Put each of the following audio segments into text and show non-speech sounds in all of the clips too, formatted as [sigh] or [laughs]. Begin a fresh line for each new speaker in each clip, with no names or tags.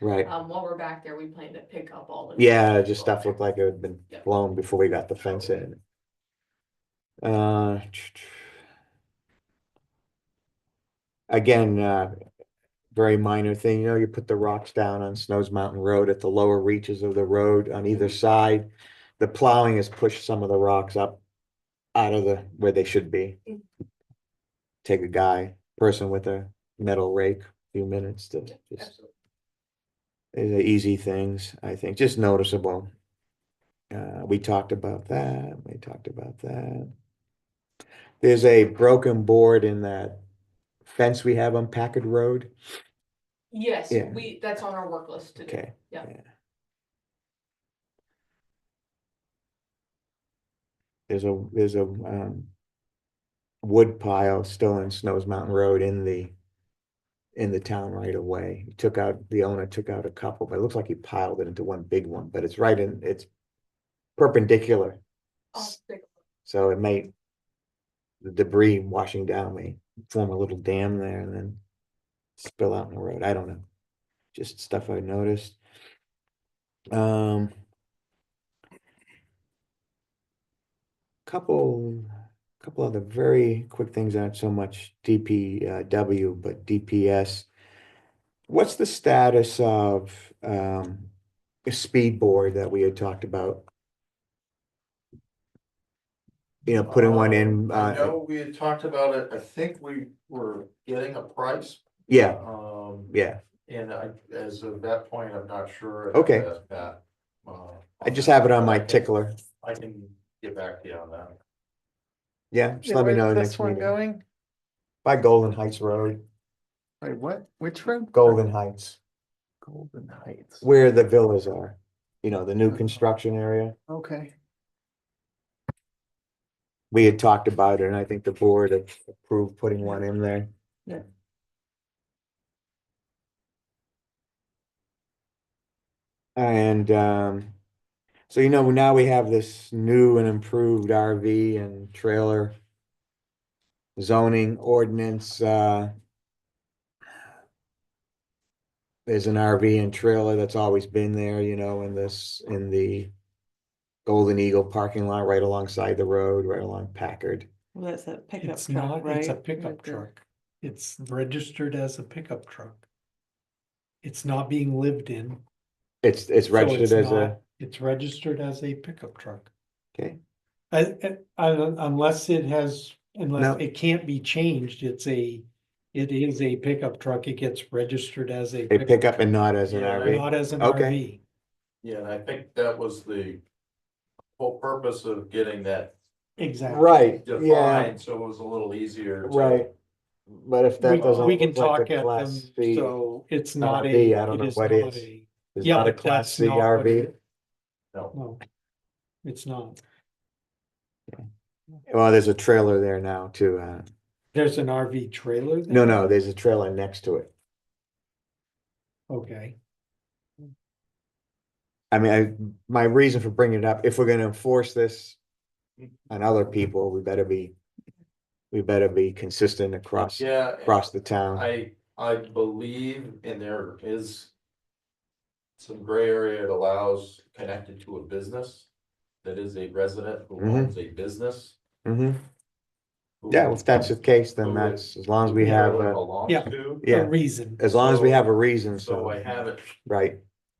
Right.
Um, while we're back there, we plan to pick up all the.
Yeah, just stuff looked like it had been
Yeah.
blown before we got the fence in. Uh. Again, uh, very minor thing, you know, you put the rocks down on Snows Mountain Road at the lower reaches of the road on either
Mm-hmm.
side. The plowing has pushed some of the rocks up out of the, where they should be.
Mm.
Take a guy, person with a metal rake, few minutes to just
Absolutely.
is the easy things, I think, just noticeable. Uh, we talked about that, we talked about that. There's a broken board in that fence we have on Packard Road.
Yes,
Yeah.
we, that's on our work list to do.
Okay.
Yeah.
There's a, there's a, um, wood pile still in Snows Mountain Road in the, in the town right away. He took out, the owner took out a couple, but it looks like he piled it into one big one, but it's right in, it's perpendicular.
I'll take-
So it may, the debris washing down may form a little dam there and then spill out in the road. I don't know. Just stuff I noticed. Um, couple, couple other very quick things, not so much DPW, but DPS. What's the status of um, the speed board that we had talked about? You know, putting one in,
Uh, I
uh,
know we had talked about it, I think we were getting a price,
yeah,
um,
yeah.
and I, as of that point, I'm not sure. if
Okay.
that- that, uh,
I just have it on my
I can-
tickler.
I can get back to you on that.
Yeah, just
Yeah,
let me
where's
know
this
next
one
meeting.
going?
By Golden Heights Road,
Wait, what? Which road?
Golden Heights,
Golden Heights.
where the villas are, you know, the new
Oh.
construction area.
Okay.
We had talked about it and I think the board had approved putting one in there.
Yeah.
And, um, so you know, now we have this new and improved RV and trailer zoning ordinance, uh, there's an RV and trailer that's always been there, you know, in this, in the Golden Eagle parking lot right alongside the road, right along Packard.
Well, that's a pickup
It's
truck,
not,
right?
it's a pickup
Like the-
truck. It's registered as a pickup truck. It's not being lived in. so
It's, it's registered
it's
as a,
not- It's registered as a pickup truck.
okay,
I, I- I don't- unless it has,
No.
unless it can't be changed, it's a, it is a pickup truck. It gets registered as a.
a pickup and not as an
Yeah,
RV.
Not as an
Okay.
RV.
Yeah, and I think that was the whole purpose of getting that
Exactly.
Right, yeah,
defined, so it was a little easier. to-
right. But if that
We,
doesn't
we can
look like
talk
a
at them,
class B,
so it's not
RV,
a.
I don't
it
know
is
what
not
is.
a-
it's
Yeah,
not a
but
class
that's
C
not what it
RV.
is.
No,
No, it's not.
Well, there's a trailer there now too. Uh,
There's an RV trailer?
no,
there?
no, there's a trailer next to it.
Okay,
I mean, I, my reason for bringing it up, if we're gonna enforce this on other people, we better be, we better be consistent across,
yeah. and-
across the town.
I, I believe, and there is some gray area it allows connected to a business that is a resident who
Mhm.
owns a business.
hmm
who-
Yeah, if that's the case,
who
then
it-
that's, as long as we
who it
have, uh, a-
Belongs
Yeah.
to,
a
yeah,
reason.
as long as we
so-
have a reason,
so I
so,
haven't,
right,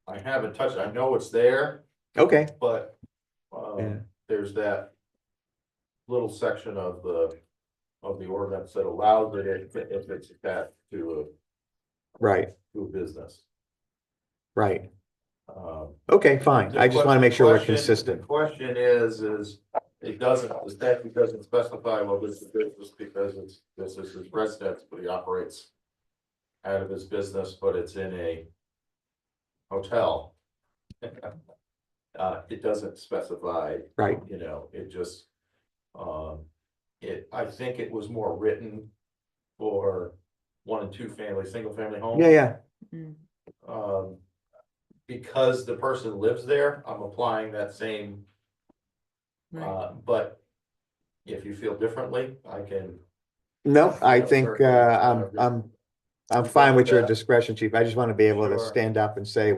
I haven't touched, I know it's there,
okay,
but,
Yeah.
um, there's that little section of the, of the ordinance that allows it if, if it's attached to
right,
a, to a business.
right.
Um,
Okay, fine.
The
I just want to
que-
make sure we're
question- the
consistent.
Question is, is it doesn't, the statute doesn't specify well, this is business because it's, this is his residence, but he operates. Out of his business, but it's in a. Hotel. [laughs] Uh, it doesn't specify,
Right,
you know, it just. Um, it, I think it was more written. For one and two family, single family homes
yeah, yeah,
Mm.
um, because the person lives there, I'm applying that same,
Right.
uh, but if you feel differently, I can,
no, I
Yeah,
think,
sorry.
uh, I'm, I'm I'm fine with your
that.
discretion, chief. I just want to be able to
Sure.
stand up and say